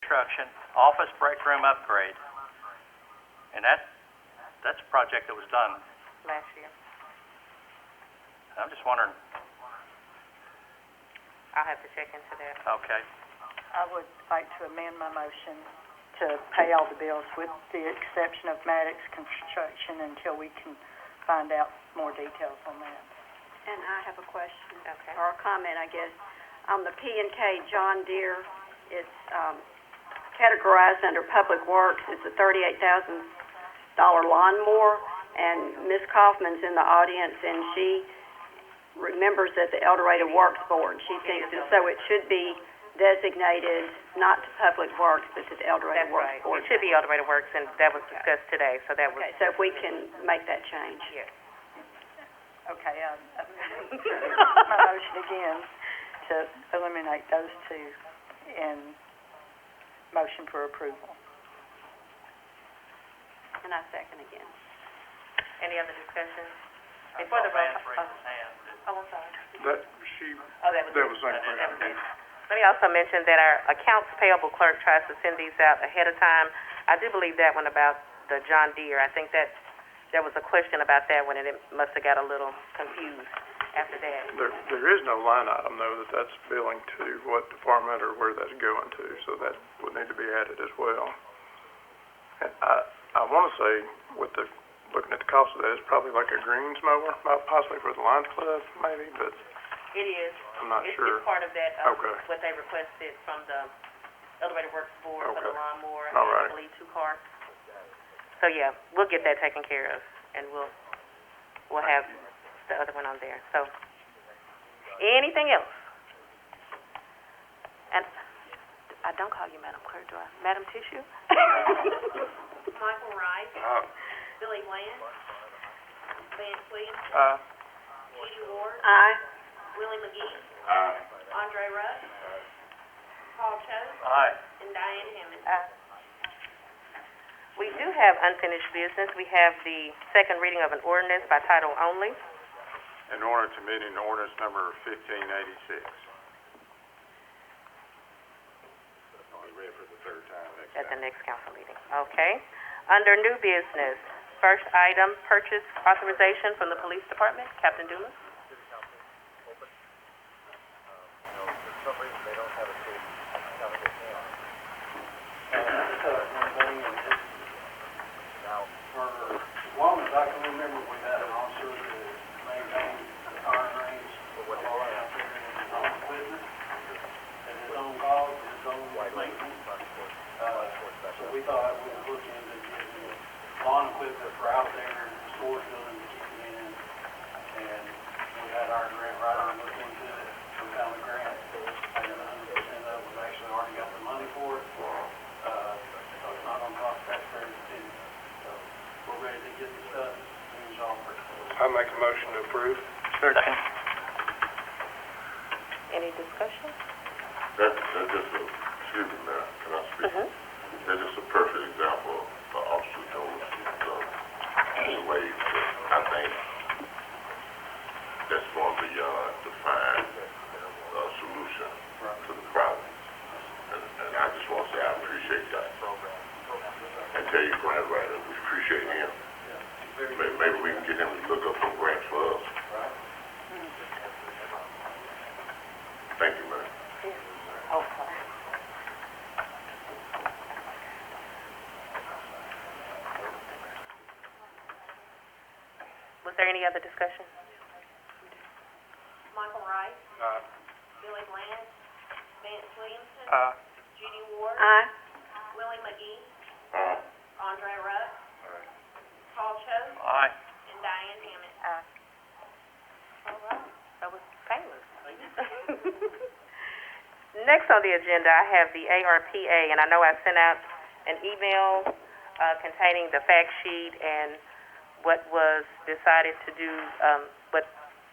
construction, office break room upgrade. And that, that's a project that was done. last year. I'm just wondering, I'll have to check into that. okay, I would like to amend my motion to pay all the bills with the exception of Maddox Construction until we can find out more details on that. And I have a question, Okay. or a comment, I guess. On the P and K John Deere, it's, um, categorized under Public Works, it's a thirty-eight thousand dollar lawnmower, and Ms. Kaufman's in the audience, and she remembers that the El Dorado Works Board, she thinks, and so it should be designated not to Public Works, but to the El Dorado That's Works right. Board. It should be all the way to Works, and that was discussed today, so that was, Okay, so if we can make that change. yes. Okay, I amend my motion again to eliminate those two and motion for approval. And I second again. Any other discussion? Before the uh, roll. Oh, I'm sorry. That, she, Oh, that was that it. was my That was question. it. Let me also mention that our accounts payable clerk tries to send these out ahead of time. I do believe that one about the John Deere, I think that, there was a question about that one, and it must have got a little confused after that. There, there is no line item though that that's billing to what department or where that's going to, so that would need to be added as well. And I, I wanna say with the, looking at the cost of that, it's probably like a greens mower, might- possibly for the Lions Club maybe, but It is. I'm not It's, it's sure. part of that, um, Okay. what they requested from the Elevated Works Board for the Okay. lawnmower, All I right. believe two carts. So, yeah, we'll get that taken care of, and we'll, we'll have the other one on there, so. Anything else? And, I don't call you Madam Clerk, do I? Madam Tissue? Michael Wright. Aye. Billy Lance. Van Sweet. Aye. Judy Ward. Aye. Willie McGee. Andre Rush. Paul Choate. aye. And Diane Hammond. We do have unfinished business, we have the second reading of an ordinance by title only. in order to meet an ordinance number fifteen eighty-six. Only read for the third time next at the next council meeting, okay? Under new business, first item, purchase authorization from the police department, Captain Dumas? I make a motion to approve. Second. Any discussion? That, that's just a, excuse me, Mayor, can I speak? Mhm. That's just a perfect example of Officer Dolan's, uh, in ways that I think that's uh, going beyond to find a uh, solution to the problem. And, and I just want to say I appreciate that. And tell you Grant Ryder, we appreciate him. Maybe, maybe we can get him to look up some grants for us. Thank you, Mayor. Oh, sorry. Was there any other discussion? Michael Wright. Aye. Billy Lance. Vance Williamson. Aye. Judy Ward. Aye. Willie McGee. Uh, Andre Rush. Paul Choate. Aye. And Diane Hammond. All right, that was painless. Next on the agenda, I have the ARPA, and I know I sent out an email uh, containing the fact sheet and what was decided to do, um, what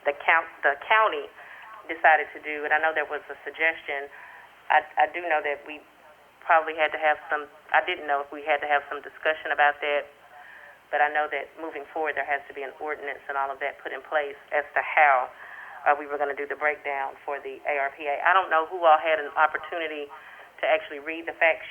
the count, the county decided to do, and I know there was a suggestion. I, I do know that we probably had to have some, I didn't know if we had to have some discussion about that, but I know that moving forward, there has to be an ordinance and all of that put in place as to how uh, we were going to do the breakdown for the ARPA. I don't know who all had an opportunity to actually read the fact